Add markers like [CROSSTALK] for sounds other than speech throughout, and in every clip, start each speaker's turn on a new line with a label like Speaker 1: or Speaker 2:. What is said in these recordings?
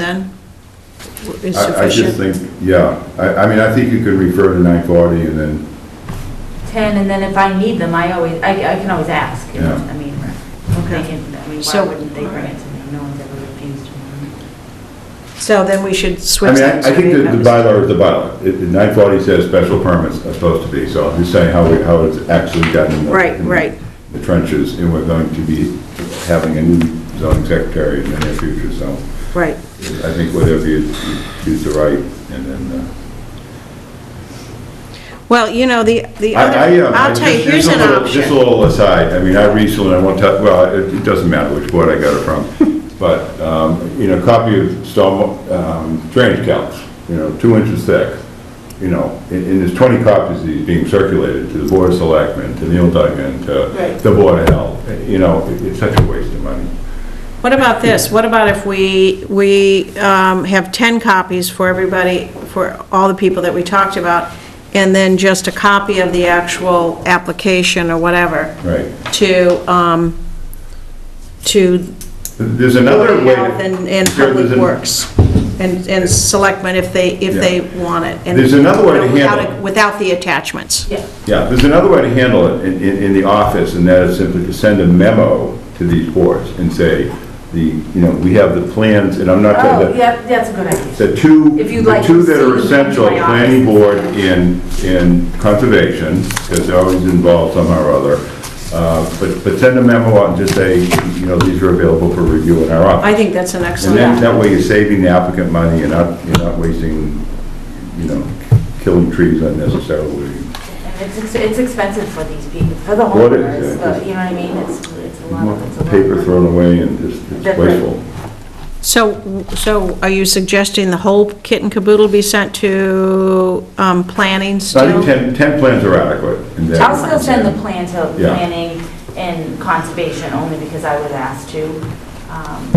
Speaker 1: then is
Speaker 2: I, I just
Speaker 1: sufficient.
Speaker 2: think, yeah, I, I mean, I think you could refer to nine forty and then,
Speaker 3: 10, and then if I need them, I always, I I can always ask. you know,
Speaker 2: Yeah.
Speaker 3: I mean,
Speaker 1: Okay.
Speaker 3: they can, I mean, why
Speaker 1: So-
Speaker 3: wouldn't they bring it to me? No one's ever refused one.
Speaker 1: So then we should
Speaker 2: I
Speaker 1: switch
Speaker 2: mean,
Speaker 1: that.
Speaker 2: I, I think that the bylaw is the bylaw. It, nine forty says special permits are supposed to be, so I'm just saying how, we- how it's actually gotten in the.
Speaker 1: Right,
Speaker 2: in
Speaker 1: right.
Speaker 2: The trenches, and we're going to be having a new zoning secretary in the near future, so
Speaker 1: Right,
Speaker 2: I think whatever you you choose to write, and then, uh,
Speaker 1: well, you know, the, the
Speaker 2: I, I,
Speaker 1: other,
Speaker 2: um,
Speaker 1: I'll tell you,
Speaker 2: just-
Speaker 1: here's
Speaker 2: just a
Speaker 1: an
Speaker 2: little- Just a
Speaker 1: option.
Speaker 2: little aside, I mean, I recently, I won't tell, well, it, it doesn't matter which board I got it from,
Speaker 1: [LAUGHS]
Speaker 2: but, um, you know, copy of storm, um, drainage counts, you know, two inches thick, you know, and, and there's twenty copies of these being circulated to the board of selectmen, to Neil Duggan, to
Speaker 1: Right.
Speaker 2: the board of health, you know, it- it's such a waste of money.
Speaker 1: What about this? What about if we, we um, have 10 copies for everybody, for all the people that we talked about, and then just a copy of the actual application or whatever?
Speaker 2: Right.
Speaker 1: To, um, to
Speaker 2: There's another way. to-
Speaker 1: Health and, and
Speaker 2: there- there's
Speaker 1: Public
Speaker 2: an-
Speaker 1: Works, and, and Selectmen if they, if they
Speaker 2: Yeah.
Speaker 1: want it. and-
Speaker 2: There's another way to
Speaker 1: without
Speaker 2: handle it.
Speaker 1: Without the attachments.
Speaker 3: Yeah.
Speaker 2: Yeah, there's another way to handle it in, in, in the office, and that is simply to send a memo to these boards and say, the, you know, we have the plans, and I'm not,
Speaker 3: Oh,
Speaker 2: the,
Speaker 3: yeah, that's a good idea.
Speaker 2: the two,
Speaker 3: If you'd
Speaker 2: the
Speaker 3: like
Speaker 2: two
Speaker 3: to
Speaker 2: that are
Speaker 3: see them in
Speaker 2: essential,
Speaker 3: my office.
Speaker 2: planning board and, and conservation, because they're always involved somehow or other. Uh, but, but send a memo out and just say, you know, these are available for review in our office.
Speaker 1: I think that's an
Speaker 2: And
Speaker 1: excellent.
Speaker 2: then, that way you're saving the applicant money, and not, you're not wasting, you know, killing trees unnecessarily.
Speaker 3: And it's, ex- it's expensive for these people, for the
Speaker 2: What is
Speaker 3: homeowners,
Speaker 2: it?
Speaker 3: uh, you know what I mean? It's, it's a lot, it's a lot.
Speaker 2: Paper thrown away and just it's
Speaker 3: That's right.
Speaker 2: wasteful.
Speaker 1: So, so are you suggesting the whole kit and caboodle be sent to um, planning
Speaker 2: So I think
Speaker 1: still?
Speaker 2: 10, 10 plans are adequate. and then-
Speaker 3: I'll still send the plan to
Speaker 2: Yeah.
Speaker 3: planning and conservation, only because I was asked to. Um,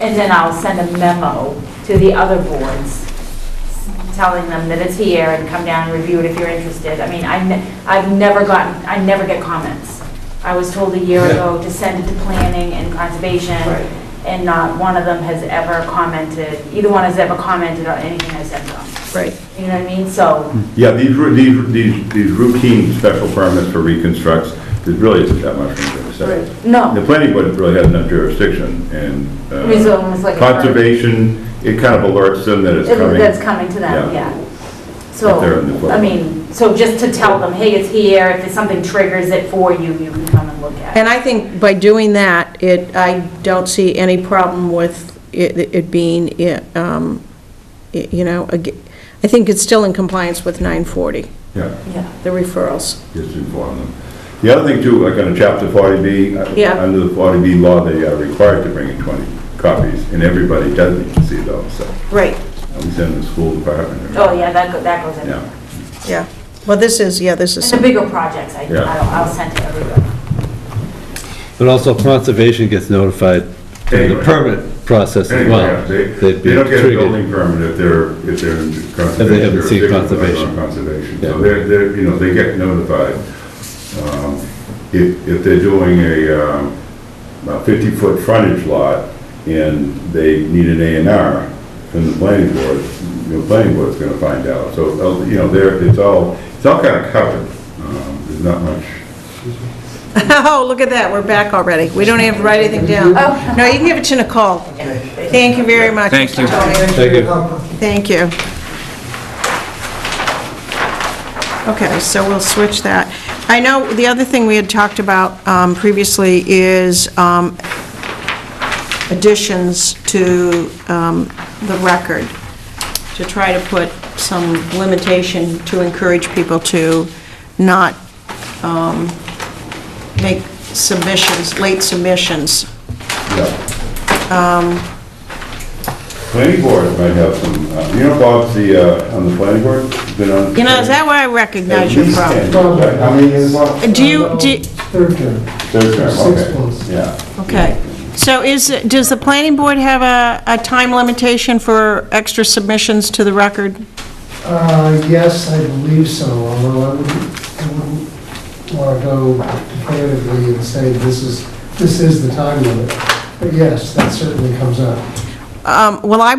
Speaker 3: And then I'll send a memo to the other boards, telling them that it's here and come down and review it if you're interested. I mean, I ne- I've never gotten, I never get comments. I was told a year ago to send it to planning and conservation, and not one of them has ever commented, either one has ever commented on anything I sent them.
Speaker 1: Right.
Speaker 3: You know what I mean? So,
Speaker 2: Yeah, these, ru- these, ru- these these routine special permits for reconstructs, there really isn't that much from the side.
Speaker 3: no.
Speaker 2: The planning board really has enough jurisdiction and. uh,
Speaker 3: I mean, so almost like a-
Speaker 2: Conservation, it kind of alerts them that it's
Speaker 3: It-
Speaker 2: coming.
Speaker 3: That's coming to them,
Speaker 2: Yeah.
Speaker 3: yeah. So,
Speaker 2: If they're in the book.
Speaker 3: I mean, so just to tell them, hey, it's here, if it's something triggers it for you, you can come and look at it.
Speaker 1: And I think by doing that, it, I don't see any problem with it it being, it, um, it- you know, ag- I think it's still in compliance with 940,
Speaker 2: Yeah,
Speaker 3: Yeah.
Speaker 1: the referrals.
Speaker 2: just inform them. The other thing too, like on a chapter 40B, uh,
Speaker 1: Yeah.
Speaker 2: under the 40B law, they are required to bring in 20 copies and everybody does need to see those, so.
Speaker 1: Right,
Speaker 2: At least in the school department. or-
Speaker 3: Oh, yeah, that, go- that goes in.
Speaker 2: Yeah.
Speaker 3: And
Speaker 1: yeah. Well, this is, yeah, this is,
Speaker 3: the bigger projects, I,
Speaker 2: Yeah.
Speaker 3: I'll I'll send to everybody.
Speaker 4: But also conservation gets notified in the
Speaker 2: Anyway.
Speaker 4: permit process as
Speaker 2: Anyway,
Speaker 4: well.
Speaker 2: They
Speaker 4: They'd
Speaker 2: they
Speaker 4: be
Speaker 2: don't get a
Speaker 4: triggered.
Speaker 2: building permit if they're, if they're in conservation.
Speaker 4: they haven't seen
Speaker 2: jurisdiction,
Speaker 4: conservation.
Speaker 2: they're on Conservation,
Speaker 4: Yeah.
Speaker 2: so they're, they're, you know, they get notified. Um, If, if they're doing a um, a 50-foot frontage lot and they need an A and R from the planning board, the planning board's gonna find out. So, uh, you know, they're, it's all, it's all kind of covered. Um, There's not much.
Speaker 1: [LAUGHS] oh, look at that, we're back already. We don't have to write anything down. No, you can give it to Nicole. Thank you very much.
Speaker 5: Thank you.
Speaker 1: Tony.
Speaker 4: Thank you.
Speaker 1: Thank you. Okay, so we'll switch that. I know the other thing we had talked about um, previously is um, additions to um, the record, to try to put some limitation to encourage people to not um, make submissions, late submissions.
Speaker 2: Yeah.
Speaker 1: Um,
Speaker 2: Planning board might have some, uh, you know Bob's the, uh, on the planning board, He's been on.
Speaker 1: You know, is that why I recognize you from?
Speaker 2: Right, How many years?
Speaker 1: Do you- do-
Speaker 6: Third term.
Speaker 2: Third term,
Speaker 6: Six
Speaker 2: okay.
Speaker 6: months.
Speaker 2: Yeah.
Speaker 1: Okay, so is, does the planning board have a, a time limitation for extra submissions to the record?
Speaker 6: Uh, yes, I believe so, although I wouldn't, I wouldn't want to go definitively and say this is, this is the time limit. But yes, that certainly comes up.
Speaker 1: Um, Well, I